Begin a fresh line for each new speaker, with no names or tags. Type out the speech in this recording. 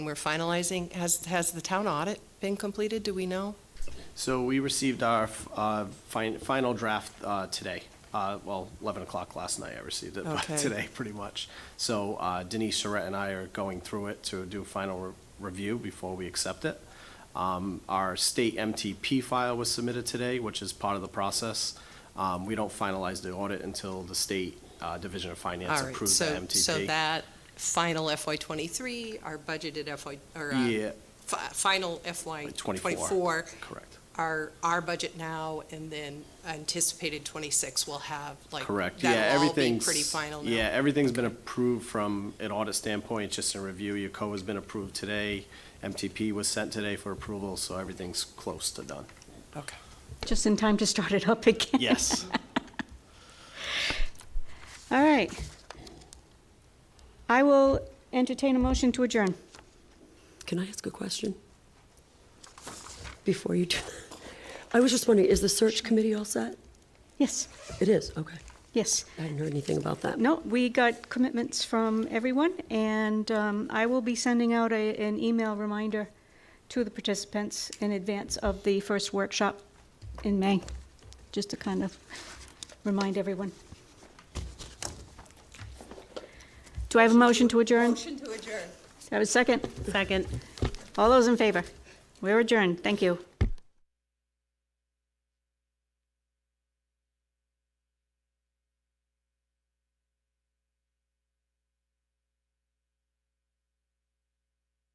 We're finalizing, has, has the town audit been completed, do we know?
So we received our uh, fin- final draft uh, today. Uh, Well, 11 o'clock last night, I received it but
Okay.
today, pretty much. So uh, Denise Charette and I are going through it to do a final re- review before we accept it. Um, Our state MTP file was submitted today, which is part of the process. Um, We don't finalize the audit until the State uh, Division of Finance
All right,
approves the
so,
MTP.
so that final FY twenty-three, our budgeted FY, or, uh,
Yeah,
fi- final FY
24.
twenty-four,
correct.
our, our budget now, and then anticipated twenty-six will have, like,
Correct, yeah,
that'll all be
everything's.
pretty final now.
Yeah, everything's been approved from an audit standpoint, just in review, your co has been approved today, MTP was sent today for approval, so everything's close to done.
Okay.
Just in time to start it up again.
Yes.
All right. I will entertain a motion to adjourn.
Can I ask a question? Before you do, I was just wondering, is the search committee all set?
Yes,
It is, okay.
yes.
I hadn't heard anything about that.
Uh, No, we got commitments from everyone, and um, I will be sending out a- an email reminder to the participants in advance of the first workshop in May, just to kind of remind everyone. Do I have a motion to adjourn? Motion to adjourn. Do I have a second?
Second.
All those in favor? We're adjourned. Thank you.